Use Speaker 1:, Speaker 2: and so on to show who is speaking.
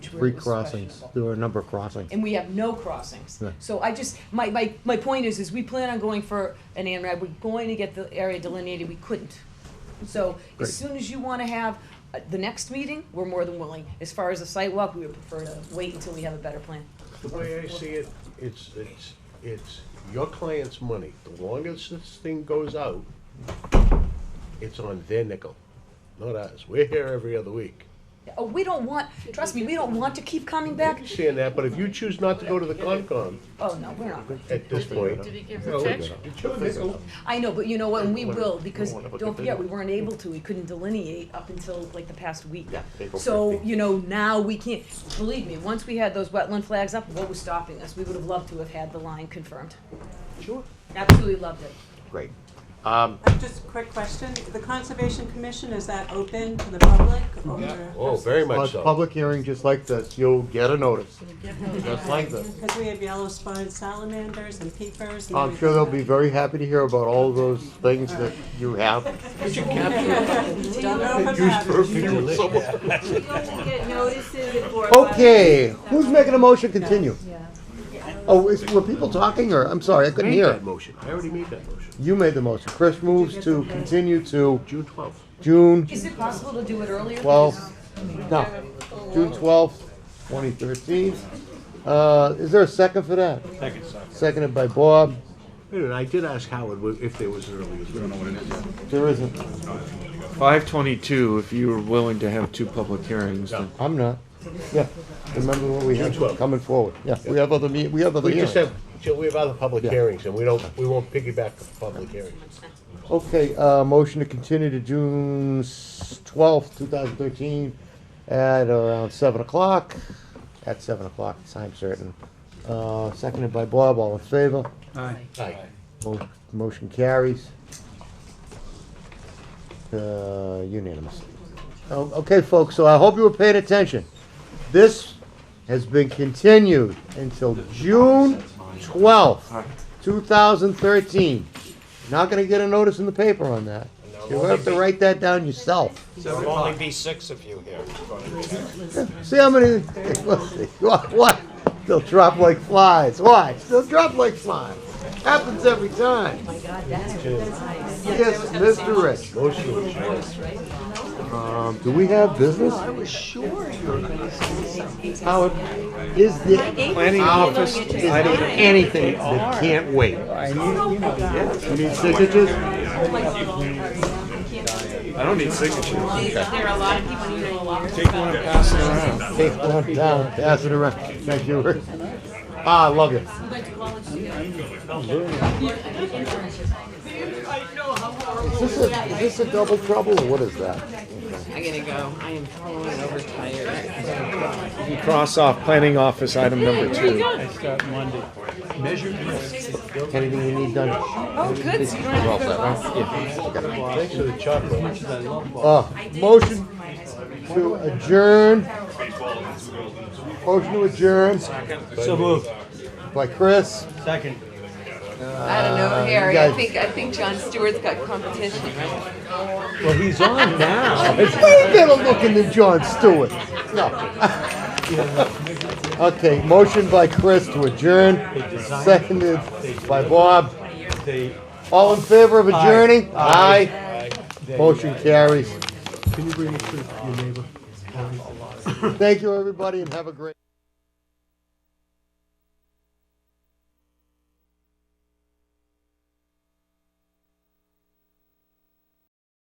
Speaker 1: where
Speaker 2: Three
Speaker 1: it was
Speaker 2: crossings,
Speaker 1: questionable.
Speaker 2: there were a number of crossings.
Speaker 1: and we have no crossings.
Speaker 2: Yeah.
Speaker 1: So I just, my, my, my point is, is we plan on going for an ANRAD, we're going to get the area delineated, we couldn't. So
Speaker 2: Great.
Speaker 1: as soon as you wanna have uh, the next meeting, we're more than willing. As far as the sidewalk, we would prefer to wait until we have a better plan.
Speaker 3: The way I see it, it's, it's, it's your client's money. The longer this thing goes out, it's on their nickel, not ours. We're here every other week.
Speaker 1: Oh, we don't want, trust me, we don't want to keep coming
Speaker 3: I
Speaker 1: back.
Speaker 3: understand that, but if you choose not to go to the Concom
Speaker 1: Oh, no, we're not.
Speaker 3: at this point.
Speaker 4: Did he give
Speaker 3: No,
Speaker 4: the check?
Speaker 3: it's- it's your nickel.
Speaker 1: I know, but you know what, and we will, because
Speaker 5: Wanna look
Speaker 1: don't
Speaker 5: at
Speaker 1: forget, we
Speaker 5: the-
Speaker 1: weren't able to, we couldn't delineate up until like the past week.
Speaker 5: Yeah, April
Speaker 1: So,
Speaker 5: 15.
Speaker 1: you know, now we can't, believe me, once we had those wetland flags up, what was stopping us? We would have loved to have had the line confirmed.
Speaker 3: Sure.
Speaker 1: Absolutely loved it.
Speaker 5: Great.
Speaker 6: Uh, Just a quick question, the Conservation Commission, is that open to the public or?
Speaker 3: Oh, very
Speaker 2: Uh,
Speaker 3: much
Speaker 2: it's a
Speaker 3: so.
Speaker 2: Public hearing just like this, you'll get a notice, just like this.
Speaker 6: Because we have yellow spotted salamanders and peepers and
Speaker 2: I'm Um, sure they'll be very happy to hear about all those things that you have.
Speaker 6: everything. Don't know if it's happened.
Speaker 7: You only get notices if we're.
Speaker 1: Oh.
Speaker 2: Okay, who's making a motion continue? Oh, is- were people talking or, I'm sorry, I couldn't
Speaker 3: Made
Speaker 2: hear.
Speaker 3: that motion. I already made that motion.
Speaker 2: You made the motion. Chris moves to continue to
Speaker 3: June twelfth.
Speaker 2: June
Speaker 1: Is it possible to do it earlier?
Speaker 2: twelfth, no, June twelfth, twenty thirteen. Uh, is there a second for that? Second. Seconded by Bob.
Speaker 3: Wait a minute, I did ask Howard wh- if there was an earlier.
Speaker 2: There isn't.
Speaker 8: Five twenty-two, if you were willing to have two public hearings, then.
Speaker 2: I'm not. Yeah, remember what we have
Speaker 3: 12.
Speaker 2: coming forward. Yeah, we have other meet, we have other
Speaker 3: We just
Speaker 2: hearings.
Speaker 3: have, so we have other public
Speaker 2: Yeah.
Speaker 3: hearings and we don't, we won't piggyback the public hearings.
Speaker 2: Okay, uh, motion to continue to June twelfth, two thousand thirteen, at around seven o'clock, at seven o'clock, time certain. Uh, seconded by Bob, all in favor?
Speaker 3: Aye.
Speaker 2: Mo- Motion carries. Uh, Unanimous. Oh, Okay, folks, so I hope you were paying attention. This has been continued until June twelfth, two thousand thirteen. Not gonna get a notice in the paper on that. You'll have to write that down yourself.
Speaker 5: There'll only be six of you here.
Speaker 2: See how many, what, what? They'll drop like flies. Watch, they'll drop like flies. Happens every time. Oh my God, that's Yes, Mr. Rich.
Speaker 3: Motion to adjourn.
Speaker 2: Um, do we have business? I was sure you were gonna say Howard, is there planning office, is there anything that can't wait? You need signatures?
Speaker 8: I don't need signatures.
Speaker 7: There are a lot of people who know a lot.
Speaker 2: Take one down, pass it around. Thank you, Rick. Ah, I love you. Is this a, is this a double trouble or what is that?
Speaker 9: I gotta go. I am totally overtired.
Speaker 8: You can cross off planning office item number two.
Speaker 2: Anything you need done?
Speaker 9: Oh, good. So you don't have to go to Boston.
Speaker 3: Thanks for the chocolate.
Speaker 2: Uh, motion to adjourn. Motion to adjourn. So moved. By Chris.
Speaker 9: I don't
Speaker 1: Uh,
Speaker 9: know, Harry.
Speaker 2: guys-
Speaker 9: I think I think John Stewart's got competition. Right?
Speaker 2: Well, he's on now. Way better looking than John Stewart. No. Okay, motion by Chris to adjourn, seconded by Bob. All in favor of adjourning? Aye. Motion carries. Can you bring it to your neighbor? Thank you, everybody, and have a great.